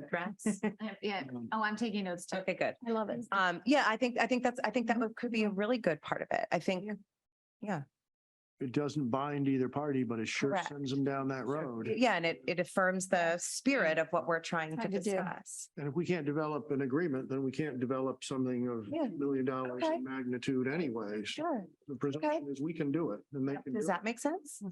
address? I- Yeah. Um, Oh, I'm taking notes too. Okay, good. I love it. Um, yeah, I think, I think that's, I think that would- could be a really good part of it. I think, It doesn't bind either party, but it sure Correct. sends them down that road. yeah, and it, it affirms the spirit of what we're trying to Trying to do. discuss. And if we can't develop an agreement, then we can't develop something of Yeah. million dollars Okay. in magnitude anyways. Sure. The presumption is we can do it and they can do Does it. that make sense?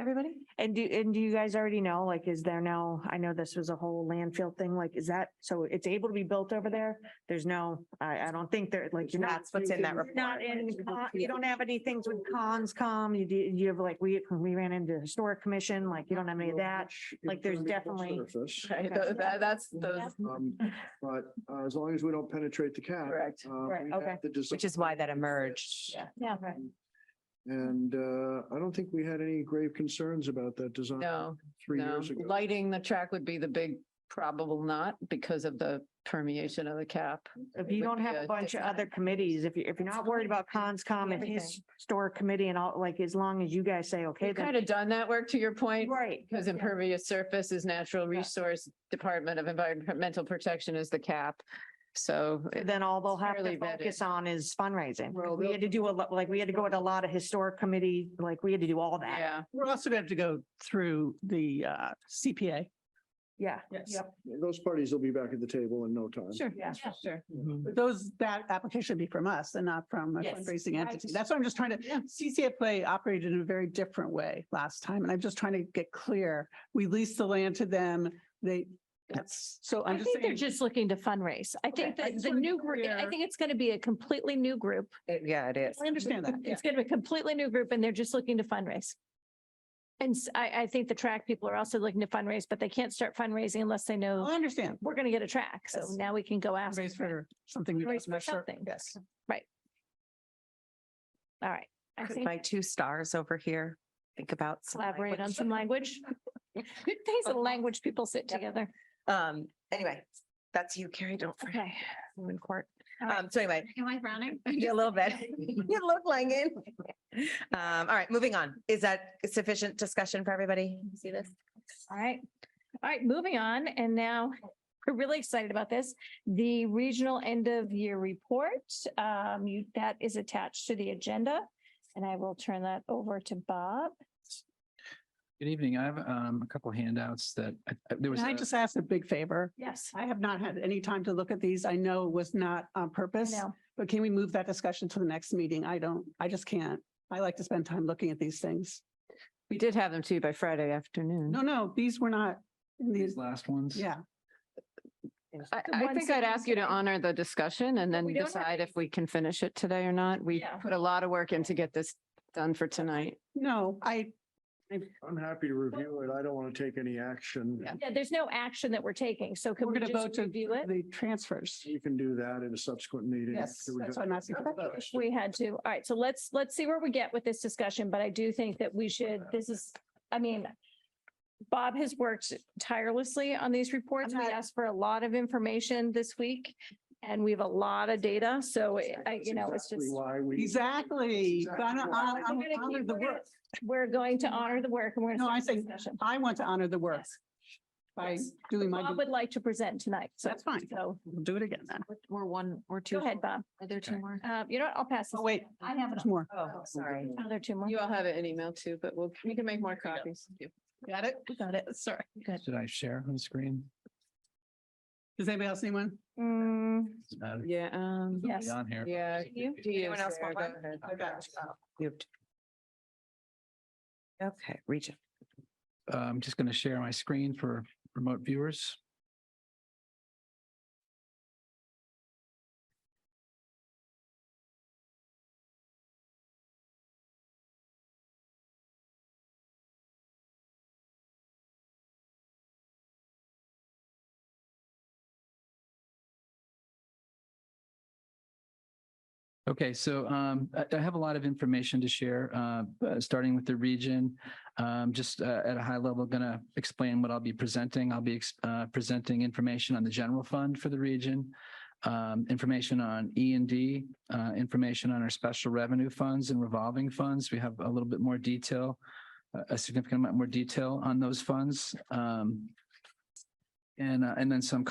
Everybody? And do, and do you guys already know, like, is there now, I know this was a whole landfill thing, like, is that, so it's able to be built over there? There's no, I, I don't think there, like, you're not. That's what's in that you're report. Not in, con- you don't have any things with cons come, you do, you have like, we, we ran into historic commission, like, you don't have any of that. like, there's definitely- Right, Okay. tho- tha- That's those, um, But uh, as long as we don't penetrate the cap. Correct. uh, Right, we have okay. to design which is why that it emerged. fits. Yeah. And uh, I don't think we had any grave concerns about that design No, three no. years ago. Lighting the track would be the big probable not because of the permeation of the cap. If you would don't be have a a bunch of design. other committees, if you, if you're not worried about cons come and Everything. historic committee and all, like, as long as you guys say, okay. We've then- kind of done that work to your point, Right. because impervious surface is natural resource, Department of Environmental Protection is the cap. So it- then all they'll It's have to fairly vetted. focus on is fundraising. Well, We they'll- had to do a lot, like, we had to go to a lot of historic committee, like, we had to do all that. yeah, We're also going to have to go through the uh, CPA. Yeah. Yes. Those parties will be back at the table in no time. Sure. Yeah. Sure. Mm-hmm. But those, that application would be from us and not from a fundraising entity. That's what I'm just trying to, CCFA operated in a very different way last time. And I'm just trying to get clear. We leased the land to them. They, that's, so I I'm just think saying. they're just looking to fundraise. I think I that just the wanna be new group, I clear. think it's going to be a completely new group. It- Yeah, it is. I understand that. yeah. It's going to be a completely new group and they're just looking to fundraise. And s- I, I think the track people are also looking to fundraise, but they can't start fundraising unless they Well, know I understand. we're going to get a track. So Yes. now we can go ask. Raise for something. we Raise for don't- something. Yes. All right. I Could think My two stars over here. Think about. some collaborate on language. some language. Things of language people sit together. Um, anyway, that's you, Carrie. Don't forget. Okay. I'm in court. All right. Um, so anyway, Am I frowning? yeah, a little bit. You look like it. Um, all right, moving on. Is that sufficient discussion for everybody? See this? All right. All right, moving on. And now we're really excited about this. The regional end of year report, um, you, that is attached to the agenda. And I will turn that over to Bob. Good evening. I have um, a couple handouts that I- I- there was. Can I a- just ask a big favor? Yes. I have not had any time to look at these. I know it was not on purpose. Now, But can we move that discussion to the next meeting? I don't, I just can't. I like to spend time looking at these things. we did have them to you by Friday afternoon. No, no, these were not in These these. last ones. Yeah, I, The I ones think that I'd you ask you to said- honor the discussion and then we don't have decide if we can finish it today or not. We Yeah. put a lot of work in to get this done for tonight. no, I, I'm happy to review it. I don't want to take any action. Yeah, there's no action that we're taking. So can we're we going to vote just to review it? the transfers. You can do that in a subsequent meeting. Yes, after we that's do- what I'm asking. If We had to. All right. So let's, let's see where we get with this discussion, but I do think that we should, this is, I mean, Bob has worked tirelessly on these reports. We not- asked for a lot of information this week and we have a lot of data. So I, That's you know, it's exactly just, Why we. Exactly. Exactly. Gonna honor- I'm We're gonna honor keep- the we're gonna- work. we're going to honor the work and we're. gonna No, I start the think discussion. I want to honor the work Yes. by Yes. doing my, Bob would like to present tonight. So that's fine. So We'll do it again then. Or one, or two. go ahead, Bob. Are there two Okay. more? Uh, you know what? I'll pass. this. Oh, wait, I have there's more. Oh, sorry. another two more. You all have it in email too, but we'll, we can make more Yeah. copies. Got it? Got it. Sorry. Should I share on the screen? Does anybody else need one? Oh, Mm, Doesn't matter. Yeah, um, It's already yes. On here. yeah. You? do you, Anyone else Sarah, want go one? ahead. Moved. Okay, region. Uh, I'm just going to share my screen for remote viewers. Okay, so um, I I have a lot of information to share, uh, uh, starting with the region. Um, just uh, at a high level, going to explain what I'll be presenting. I'll be ex- uh, presenting information on the general fund for the region, um, information on E and D, uh, information on our special revenue funds and revolving funds. We have a little bit more detail, a- a significant amount more detail on those funds. Um, and uh, and then some